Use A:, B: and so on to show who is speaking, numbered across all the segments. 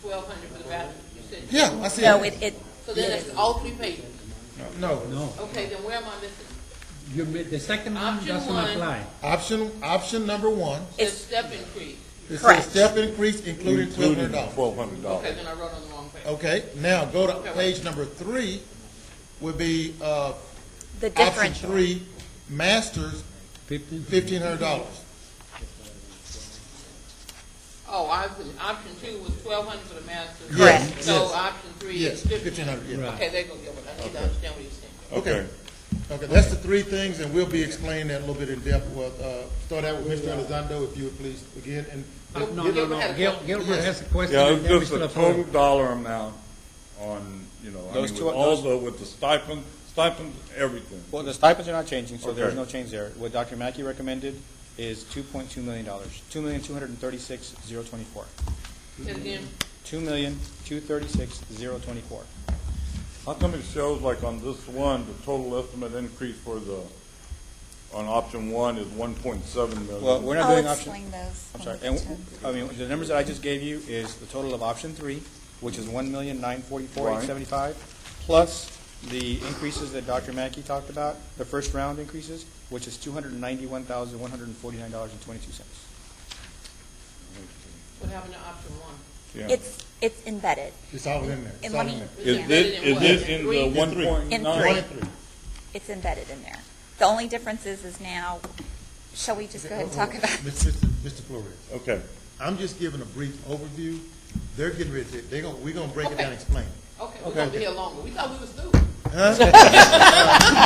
A: twelve hundred for the bathroom, you said?
B: Yeah, I see
C: No,
B: it.
C: it, it,
A: So then it's all three pages.
B: No,
D: No,
A: Okay, then where am I missing?
D: you made, the second one
A: Option
D: doesn't
A: one.
D: apply.
B: option, option number one,
A: The
C: it's,
A: step increase.
B: it
C: Correct.
B: says step increase including twelve hundred dollars.
E: Twelve hundred
A: Okay,
E: dollars.
A: then I wrote on the wrong page.
B: Okay, now go to
A: Okay.
B: page number three, would be, uh,
C: the
B: option
C: differential.
B: three, masters,
D: Fifteen,
B: fifteen hundred dollars.
A: Oh, option, option two was twelve hundred for the master.
B: Yes,
C: Correct.
A: So
B: yes.
A: option three
B: Yes,
A: is fifteen.
B: fifteen hundred, yeah.
D: Right.
A: Okay, there you go, Gilbert, I need to understand what you're saying.
E: Okay,
B: Okay, that's the three things, and we'll be explaining that a little bit in depth. Well, uh, start out with Mr. Elizondo, if you would please begin, and uh,
D: no, no,
A: Gilbert
D: no,
A: had a
D: Gil-
A: question.
D: Gilbert has a question.
E: yeah,
D: and
E: it's
D: then
E: just
D: Mr.
E: a
D: LaFleur.
E: total dollar amount on, you know, I
F: Those
E: mean, with
F: two-
E: all
F: those-
E: the, with the stipend, stipend, everything.
F: Well, the stipends are not changing, so there's
E: Okay.
F: no change there. What Dr. Mackey recommended is two point two million dollars, two million, two hundred and thirty-six, zero twenty-four.
A: And then,
F: Two million, two thirty-six, zero twenty-four.
E: How come it shows like on this one, the total estimate increase for the, on option one is one point seven million?
F: Well, we're not
G: I'll
F: doing option,
G: explain those.
F: I'm sorry,
G: when we
F: and,
G: get to 'em.
F: I mean, the numbers that I just gave you is the total of option three, which is one million, nine forty-four, eight seventy-five, plus the increases that Dr. Mackey talked about, the first round increases, which is two hundred and ninety-one thousand, one hundred and forty-nine dollars and twenty-two cents.
A: what happened to option one?
E: Yeah.
C: It's, it's embedded.
B: it's all in there. It's
C: And
B: all
C: let
B: in
C: me,
B: there.
E: Is it, is it in the one point
C: In
B: One
C: three.
E: nine?
B: and three.
C: it's embedded in there. The only difference is, is now, shall we just go ahead and talk about?
B: Mr. Mr. Flores,
E: Okay,
B: I'm just giving a brief overview. They're getting ready to, they're gonna, we're gonna break it
A: Okay.
B: down and explain.
A: Okay, we're gonna be
B: Okay.
A: here longer, we thought we was through.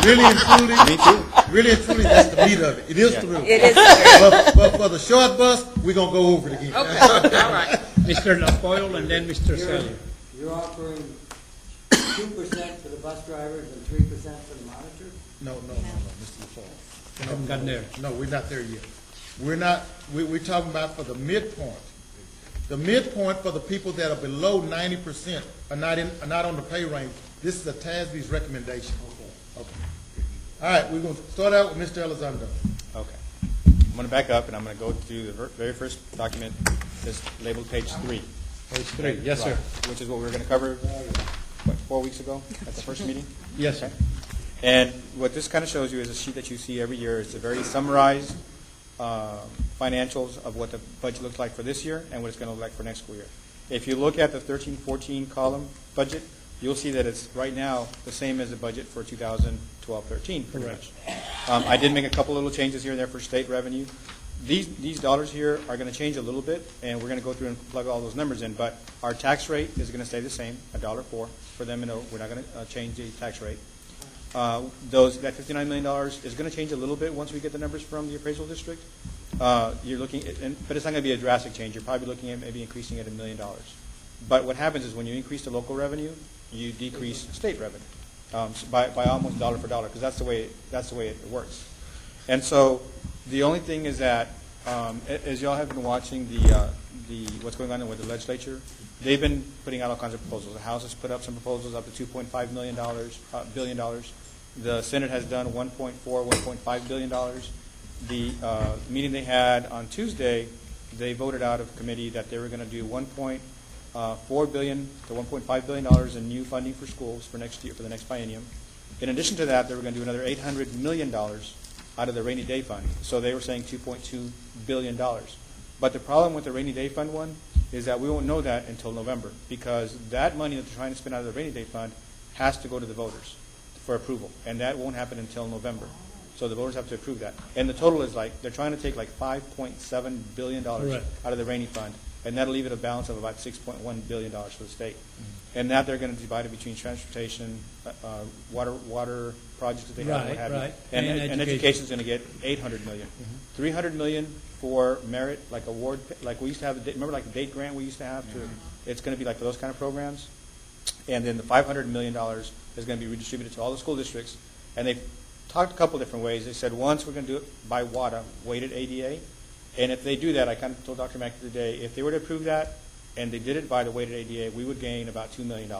B: Really and truly, really and truly, that's the meat of it. It is through.
C: It is,
B: But, but for the short bus, we're gonna go over it again.
A: Okay, all right,
D: Mr. LaFoil and then Mr.
H: You're-
D: Selly.
H: You're offering two percent for the bus drivers and three percent for the monitor?
B: No, no, no, no, Mr. LaFleur.
D: Haven't gotten there.
B: No, we're not there yet. We're not, we, we're talking about for the midpoint. The midpoint for the people that are below ninety percent are not in, are not on the pay range. This is a TASB's recommendation. Okay. All right, we're gonna start out with Mr. Elizondo.
F: Okay. I'm going to back up, and I'm going to go to the ver- very first document that's labeled page three.
D: Page three, yes, sir.
F: Right, Which is what we were going to cover, what, four weeks ago, at the first meeting?
D: Yes, sir.
F: And what this kind of shows you is a sheet that you see every year. It's a very summarized uh, financials of what the budget looks like for this year and what it's going to look like for next school year. If you look at the 13, 14 column budget, you'll see that it's right now the same as the budget for 2012, 13, pretty much. Um, I did make a couple little changes here and there for state revenue. These, these dollars here are going to change a little bit, and we're going to go through and plug all those numbers in, but our tax rate is going to stay the same, a dollar four for them, and uh, we're not going to change the tax rate. Uh, Those, that $59 million is going to change a little bit once we get the numbers from the appraisal district. Uh, You're looking, at- and- but it's not going to be a drastic change. You're probably looking at maybe increasing it a million dollars. But what happens is when you increase the local revenue, you decrease state revenue um, s- by by almost dollar for dollar, because that's the way, that's the way it works. And so the only thing is that, um, a- as y'all have been watching the, uh, the, what's going on with the legislature, they've been putting out all kinds of proposals. The House has put up some proposals up to two point five million dollars, uh, billion dollars. The Senate has done one point four, one point five billion dollars. The, uh, meeting they had on Tuesday, they voted out of committee that they were gonna do one point, uh, four billion to one point five billion dollars in new funding for schools for next year, for the next biennium. In addition to that, they were gonna do another eight hundred million dollars out of the rainy day fund. So they were saying two point two billion dollars. But the problem with the rainy day fund one is that we won't know that until November, because that money that they're trying to spend out of the rainy day fund has to go to the voters for approval, and that won't happen until November. So the voters have to approve that. And the total is like, they're trying to take like five point seven billion dollars
D: Correct.
F: out of the rainy fund, and that'll leave it a balance of about six point one billion dollars for the state. And that they're gonna divide it between transportation, uh, uh, water, water projects that they have, and what
D: Right,
F: have you.
D: right.
F: And,
D: And education.
F: and
D: Mm-hmm.
F: education is going to get 800 million. 300 million for merit, like award, like we used to have, the- remember like the date grant we used to have to,
D: Mm-hmm.
F: it's going to be like for those kind of programs. And then the 500 million dollars is going to be redistributed to all the school districts. And they talked a couple different ways. They said, once, we're going to do it by WADA, weighted ADA. And if they do that, I kind of told Dr. Mack today, if they were to approve that and they did it by the weighted ADA, we would gain about $2 million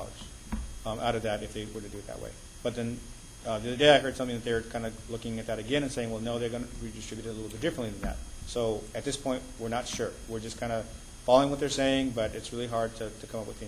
F: um, out of that if they were to do it that way. But then uh, the other day, I heard something that they're kind of looking at that again and saying, well, no, they're going to redistribute it a little bit differently than that. So at this point, we're not sure. We're just kind of following what they're saying, but it's really hard to, to come up with the